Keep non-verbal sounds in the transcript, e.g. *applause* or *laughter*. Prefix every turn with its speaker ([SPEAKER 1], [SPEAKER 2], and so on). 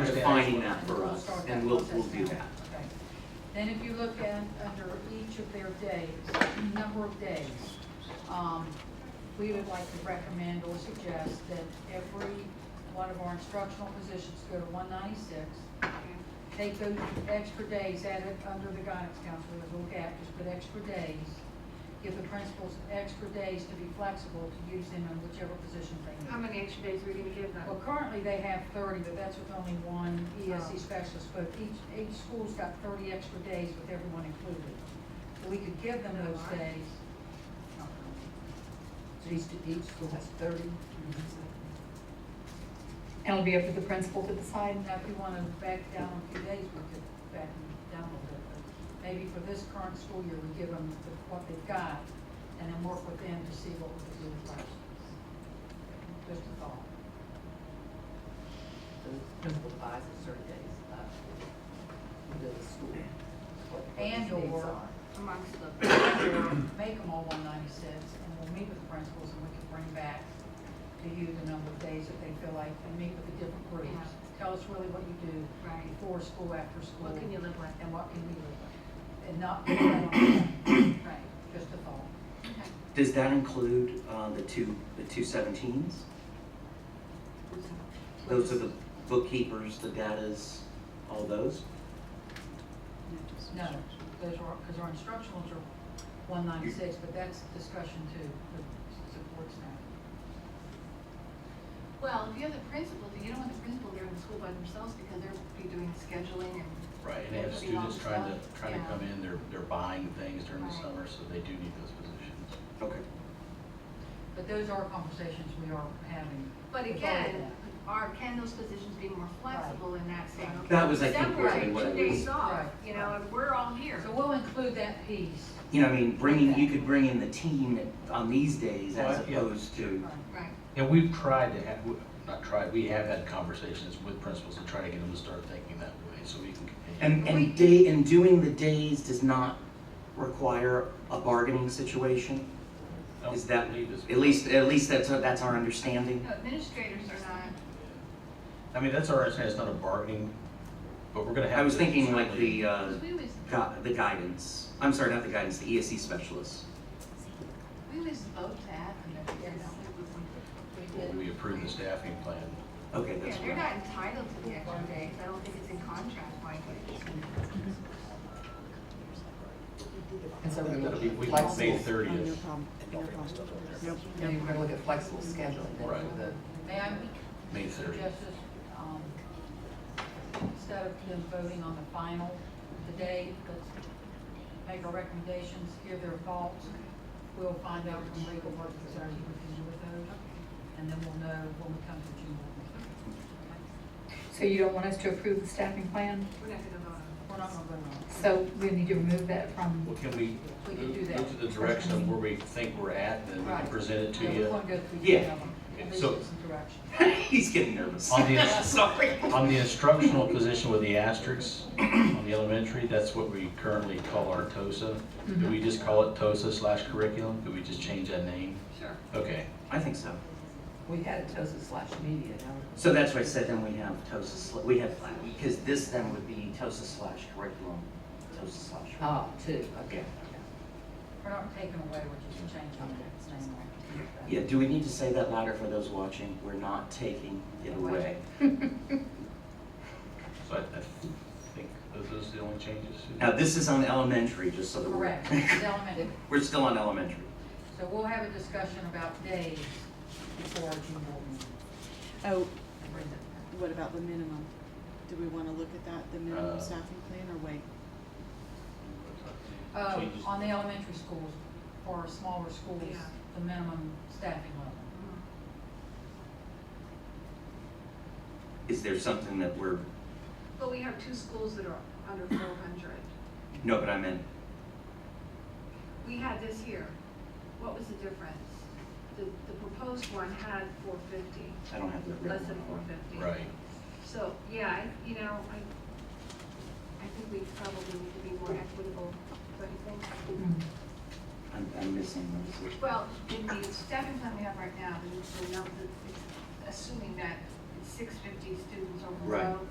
[SPEAKER 1] of defining that for us, and we'll, we'll do that.
[SPEAKER 2] Okay. Then if you look at, under each of their days, number of days, um, we would like to recommend or suggest that every one of our instructional positions go to one ninety-six. They go extra days added under the guidance counselor, we'll look at, just put extra days. Give the principals extra days to be flexible to use them in whichever position they need.
[SPEAKER 3] How many extra days are we gonna give them?
[SPEAKER 2] Well, currently they have thirty, but that's with only one
[SPEAKER 4] Oh.
[SPEAKER 2] ESC specialist, but each, each school's got thirty extra days with everyone included. So we could give them those days.
[SPEAKER 4] So each, each school has thirty.
[SPEAKER 5] And it'll be up to the principal to decide.
[SPEAKER 2] Now, if you want to back down a few days, we could back them down a little bit. but Maybe for this current school year, we give them the- what they've got and then work with them to see what we could do with last. Just a thought.
[SPEAKER 4] So the principal buys a certain days, uh, to the school. what- what these
[SPEAKER 2] And or-
[SPEAKER 4] days are.
[SPEAKER 3] Amongst the,
[SPEAKER 2] make them all one ninety-six, and we'll meet with the principals, and we can bring back to you the number of days that they feel like, and meet with the different groups.
[SPEAKER 3] Yeah.
[SPEAKER 2] Tell us really what you do
[SPEAKER 6] *coughs*
[SPEAKER 3] right,
[SPEAKER 2] before school, after school.
[SPEAKER 3] what can you live with?
[SPEAKER 2] And what can you live with, and not,
[SPEAKER 3] *coughs*
[SPEAKER 2] put that on
[SPEAKER 3] Right,
[SPEAKER 2] them. just a thought.
[SPEAKER 3] okay.
[SPEAKER 1] Does that include, uh, the two, the two seventeens? Those are the bookkeepers, the datas, all those?
[SPEAKER 2] No, those are, because our instructionals are one ninety-six, but that's discussion too, with support staff.
[SPEAKER 3] Well, if you're the principal, then you don't want the principal there in the school by themselves because they're be doing scheduling and.
[SPEAKER 6] Right, and they have
[SPEAKER 3] Those would be long
[SPEAKER 6] students trying to,
[SPEAKER 3] stuff,
[SPEAKER 6] trying to
[SPEAKER 3] yeah.
[SPEAKER 6] come in, they're, they're buying things during the
[SPEAKER 3] Right.
[SPEAKER 6] summer, so they do need those positions.
[SPEAKER 1] Okay.
[SPEAKER 2] But those are conversations we are having.
[SPEAKER 3] But
[SPEAKER 2] with all of
[SPEAKER 3] again,
[SPEAKER 2] them.
[SPEAKER 3] are, can those positions be more flexible in that saying, okay?
[SPEAKER 1] That was, I think,
[SPEAKER 3] December,
[SPEAKER 1] really what
[SPEAKER 3] two
[SPEAKER 1] it
[SPEAKER 3] days
[SPEAKER 1] was.
[SPEAKER 3] off,
[SPEAKER 2] Right.
[SPEAKER 3] you know, and we're all here.
[SPEAKER 2] So we'll include that piece.
[SPEAKER 1] You know, I mean, bringing, you could bring in the team on these days as
[SPEAKER 6] Well, yeah.
[SPEAKER 1] opposed to,
[SPEAKER 2] Right.
[SPEAKER 3] Right,
[SPEAKER 6] And we've tried to have, not tried, we have had conversations with principals to try to get them to start thinking that way, so we can continue.
[SPEAKER 1] and, and day, and doing the days does not require a bargaining situation?
[SPEAKER 6] Don't
[SPEAKER 1] Is that,
[SPEAKER 6] leave this-
[SPEAKER 1] at least, at least that's, that's our understanding?
[SPEAKER 3] no, administrators are not,
[SPEAKER 6] I mean, that's our, it's not a bargaining, but we're gonna have.
[SPEAKER 1] I was
[SPEAKER 6] to
[SPEAKER 1] thinking like
[SPEAKER 6] certainly-
[SPEAKER 1] the, uh,
[SPEAKER 3] because we always,
[SPEAKER 1] gu- the guidance, I'm sorry, not the guidance, the ESC specialists.
[SPEAKER 3] we always vote that, and that's, you
[SPEAKER 2] Yes.
[SPEAKER 3] know.
[SPEAKER 6] When we approve the staffing plan,
[SPEAKER 1] Okay,
[SPEAKER 3] Yeah,
[SPEAKER 1] that's
[SPEAKER 3] they're
[SPEAKER 1] right.
[SPEAKER 3] not entitled to the extra days, I don't think it's in contract, Mike.
[SPEAKER 4] And so we're
[SPEAKER 6] that'll be
[SPEAKER 4] looking
[SPEAKER 6] week,
[SPEAKER 4] at
[SPEAKER 6] May
[SPEAKER 4] flexible,
[SPEAKER 6] thirtieth.
[SPEAKER 4] and we're gonna look at flexible scheduling, then
[SPEAKER 6] Right.
[SPEAKER 4] for the,
[SPEAKER 2] May I
[SPEAKER 6] May thirtieth.
[SPEAKER 2] suggest this, um, instead of them voting on the final today, let's make our recommendations, give their thoughts. We'll find out from legal what exactly we can do with those, and then we'll know when we come to June.
[SPEAKER 5] So you don't want us to approve the staffing plan?
[SPEAKER 3] We're not gonna vote on it.
[SPEAKER 2] We're not gonna vote on it.
[SPEAKER 5] So we need to remove that from,
[SPEAKER 6] Well, can we
[SPEAKER 2] We can
[SPEAKER 6] move
[SPEAKER 2] do that.
[SPEAKER 6] move to the direction of where we think we're at, then we can
[SPEAKER 2] Right.
[SPEAKER 6] present it to
[SPEAKER 2] Yeah,
[SPEAKER 6] you?
[SPEAKER 2] we wanna go through
[SPEAKER 1] Yeah.
[SPEAKER 2] each of them,
[SPEAKER 6] Okay,
[SPEAKER 2] at least
[SPEAKER 6] so-
[SPEAKER 2] get some direction.
[SPEAKER 1] *laughs* He's getting nervous.
[SPEAKER 6] On
[SPEAKER 2] *laughs*
[SPEAKER 6] the-
[SPEAKER 1] *laughs* Sorry.
[SPEAKER 3] *laughs*
[SPEAKER 6] On the instructional position with the asterisks on the elementary, that's what we currently call our TOSA. Do we just call it TOSA slash curriculum? Could we just change that name?
[SPEAKER 3] Sure.
[SPEAKER 6] Okay,
[SPEAKER 1] I think so.
[SPEAKER 4] we had a TOSA slash media, now we're
[SPEAKER 1] So that's why I said then we have TOSA, sl- we have, because this then would be TOSA slash curriculum, TOSA slash.
[SPEAKER 4] Oh, two, okay.
[SPEAKER 2] We're not taking away, we're just changing it, same way.
[SPEAKER 1] Yeah, do we need to say that louder for those watching? We're not taking it away.
[SPEAKER 6] so I I think those those are the only changes.
[SPEAKER 1] Now, this is on elementary, just so that we're. *laughs*
[SPEAKER 2] Correct, it's elementary.
[SPEAKER 1] We're still on elementary.
[SPEAKER 2] So we'll have a discussion about days before our June board meeting.
[SPEAKER 7] Oh,
[SPEAKER 2] and bring that
[SPEAKER 7] what about the minimum? Do we wanna look at that, the
[SPEAKER 6] Uh,
[SPEAKER 7] minimum staffing plan, or wait?
[SPEAKER 2] back.
[SPEAKER 6] So you just-
[SPEAKER 2] Uh, on the elementary schools, for our smaller schools,
[SPEAKER 3] Yeah.
[SPEAKER 2] the minimum staffing level.
[SPEAKER 1] Is there something that we're,
[SPEAKER 3] But we have two schools that are under four hundred.
[SPEAKER 1] no, but I meant,
[SPEAKER 3] We had this here. What was the difference? The, the proposed one had four fifty,
[SPEAKER 1] I don't have the.
[SPEAKER 3] less than four fifty.
[SPEAKER 6] Right,
[SPEAKER 3] So, yeah, I, you know, I, I think we probably need to be more equitable, don't you think?
[SPEAKER 1] I'm, I'm missing those.
[SPEAKER 3] Well, in the staffing plan we have right now, the, the, num- the- it's assuming that it's six fifty students or
[SPEAKER 1] Right.
[SPEAKER 3] below,